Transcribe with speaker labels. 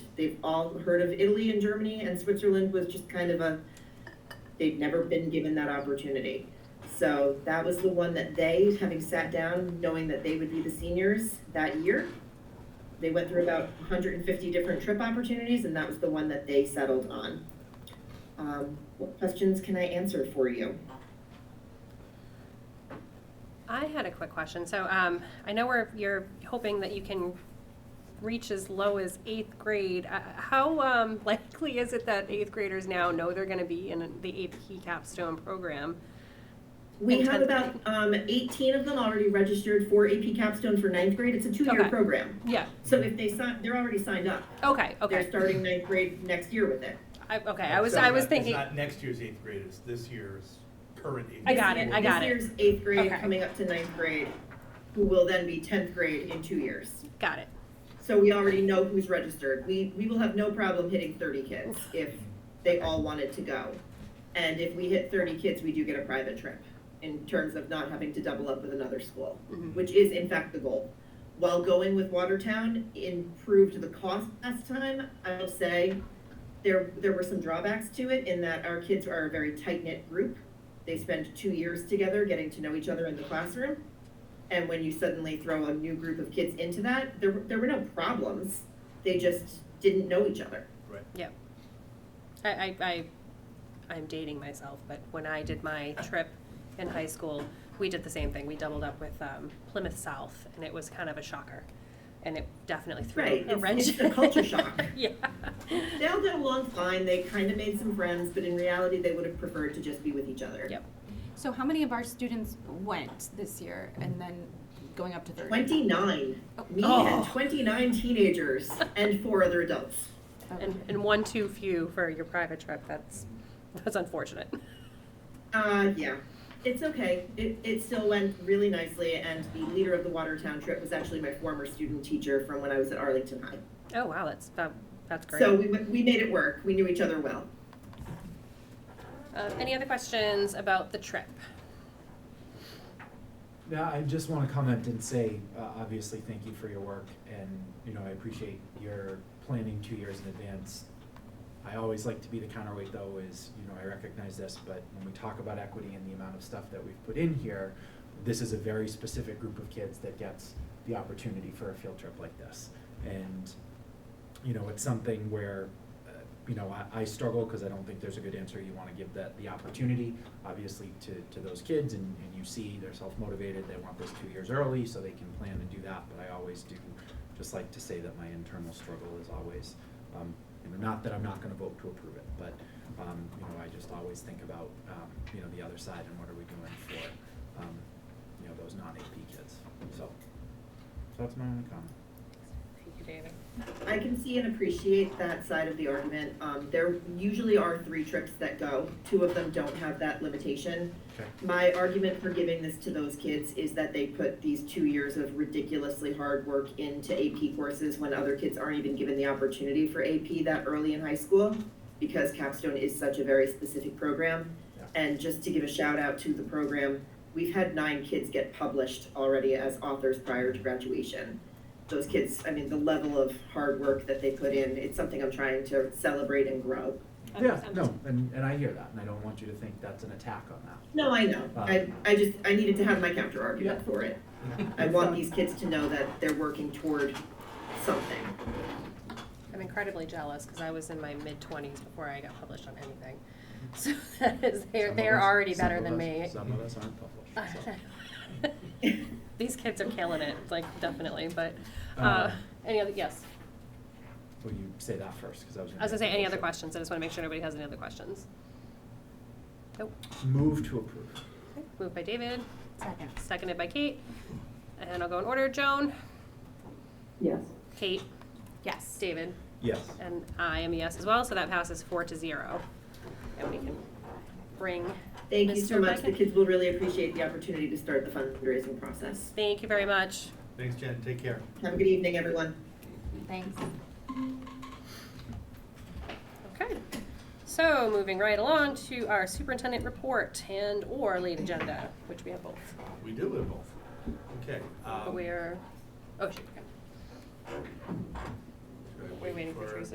Speaker 1: They've all heard of Italy and Germany, and Switzerland was just kind of a, they've never been given that opportunity. So that was the one that they, having sat down, knowing that they would be the seniors that year, they went through about 150 different trip opportunities, and that was the one that they settled on. Um, what questions can I answer for you?
Speaker 2: I had a quick question. So um, I know we're, you're hoping that you can reach as low as eighth grade. Uh, How um, likely is it that eighth graders now know they're going to be in the AP capstone program?
Speaker 1: We
Speaker 2: In
Speaker 1: have
Speaker 2: tenth
Speaker 1: about um, 18 of them already registered for AP Capstone for ninth grade. It's a two-year
Speaker 2: Okay.
Speaker 1: program.
Speaker 2: Yeah.
Speaker 1: So if they sign, they're already signed up.
Speaker 2: Okay.
Speaker 1: They're
Speaker 2: Okay.
Speaker 1: starting ninth grade next year with it.
Speaker 2: I, okay. I was.
Speaker 3: So
Speaker 2: I was
Speaker 3: that-
Speaker 2: thinking.
Speaker 3: It's not next year's eighth grade, it's this year's current eighth.
Speaker 2: I got
Speaker 3: grade.
Speaker 2: it, I got it.
Speaker 1: This year's eighth grade
Speaker 2: Okay.
Speaker 1: coming up to ninth grade, who will then be 10th grade in two years.
Speaker 2: Got it.
Speaker 1: So we already know who's registered. We, we will have no problem hitting 30 kids if they all wanted to go. And if we hit 30 kids, we do get a private trip in terms of not having to double up with another school,
Speaker 2: Mhm.
Speaker 1: which is in fact the goal. While going with Watertown improved the cost last time, I will say there, there were some drawbacks to it in that our kids are a very tight-knit group. They spend two years together getting to know each other in the classroom. And when you suddenly throw a new group of kids into that, there, were- there were no problems. They just didn't know each other.
Speaker 2: I, I, I, I'm dating myself, but when I did my trip in high school, we did the same thing. We doubled up with um, Plymouth South, and it was kind of a shocker, and it definitely threw
Speaker 1: Right,
Speaker 2: a
Speaker 1: it's-
Speaker 2: wrench.
Speaker 1: it's a culture shock.
Speaker 2: yeah.
Speaker 1: They all got along fine. They kind of made some friends, but in reality, they would have preferred to just be with each other.
Speaker 2: Yep.
Speaker 4: So how many of our students went this year and then going up to thirty?
Speaker 1: Twenty-nine, me and
Speaker 2: Oh.
Speaker 1: twenty-nine teenagers and four other adults.
Speaker 4: Okay.
Speaker 2: And, and one too few for your private trip. That's that's unfortunate.
Speaker 1: Uh, yeah, it's okay. It, it still went really nicely, and the leader of the Watertown trip was actually my former student teacher from when I was at Arlington High.
Speaker 2: Oh wow, that's that, that's great.
Speaker 1: So we, we made it work. We knew each other well.
Speaker 2: Uh, any other questions about the trip?
Speaker 5: Yeah, I just want to comment and say, uh, obviously, thank you for your work, and, you know, I appreciate your planning two years in advance. I always like to be the counterweight, though, is, you know, I recognize this, but when we talk about equity and the amount of stuff that we've put in here, this is a very specific group of kids that gets the opportunity for a field trip like this. And, you know, it's something where, uh, you know, I, I struggle because I don't think there's a good answer. You want to give that the opportunity, obviously, to, to those kids, and, and you see they're self motivated. They want this two years early so they can plan and do that. But I always do just like to say that my internal struggle is always, um, you know, not that I'm not going to vote to approve it, but, um, you know, I just always think about, um, you know, the other side and what are we doing for, um, you know, those non AP kids. So, so that's my only comment.
Speaker 2: Thank you, David.
Speaker 1: I can see and appreciate that side of the argument. Um, there usually are three trips that go. Two of them don't have that limitation.
Speaker 5: Okay.
Speaker 1: My argument for giving this to those kids is that they put these two years of ridiculously hard work into AP courses when other kids aren't even given the opportunity for AP that early in high school because Capstone is such a very specific program.
Speaker 5: Yeah.
Speaker 1: And just to give a shout out to the program, we've had nine kids get published already as authors prior to graduation. Those kids, I mean, the level of hard work that they put in, it's something I'm trying to celebrate and grow.
Speaker 5: Yeah, no, and, and I hear that, and I don't want you to think that's an attack on that.
Speaker 1: No, I know. I, I just, I needed to have my counter argument for it. I want these kids to know that they're working toward something.
Speaker 2: I'm incredibly jealous because I was in my mid twenties before I got published on anything. So that is, they're,
Speaker 5: Some of
Speaker 2: they're
Speaker 5: us-
Speaker 2: already
Speaker 5: some
Speaker 2: better
Speaker 5: of
Speaker 2: than
Speaker 5: us-
Speaker 2: me.
Speaker 5: Some of us aren't published, so.
Speaker 2: These kids are killing it, like definitely, but, uh,
Speaker 5: Um,
Speaker 2: any other, yes.
Speaker 5: Will you say that first, because I was.
Speaker 2: I was gonna say, any other
Speaker 5: question.
Speaker 2: questions? I just wanna make sure nobody has any other questions. Nope.
Speaker 5: Move to approve.
Speaker 2: Moved by David,
Speaker 4: Second.
Speaker 2: seconded by Kate. And I'll go in order. Joan,
Speaker 1: Yes.
Speaker 2: Kate,
Speaker 4: Yes.
Speaker 2: David,
Speaker 5: Yes.
Speaker 2: and I am a yes as well, so that passes four to zero. And we can bring
Speaker 1: Thank you so
Speaker 2: Mr.
Speaker 1: much. The
Speaker 2: Beckett.
Speaker 1: kids will really appreciate the opportunity to start the fundraising process.
Speaker 2: Thank you very much.
Speaker 3: Thanks, Jen, take care.
Speaker 1: Have a good evening, everyone.
Speaker 4: Thanks.
Speaker 2: Okay. So moving right along to our superintendent report and or late agenda, which we have both.
Speaker 3: We do live both. Okay. um,
Speaker 2: But we're, oh, shoot, okay.
Speaker 3: should I
Speaker 2: we're
Speaker 3: wait
Speaker 2: waiting for Teresa.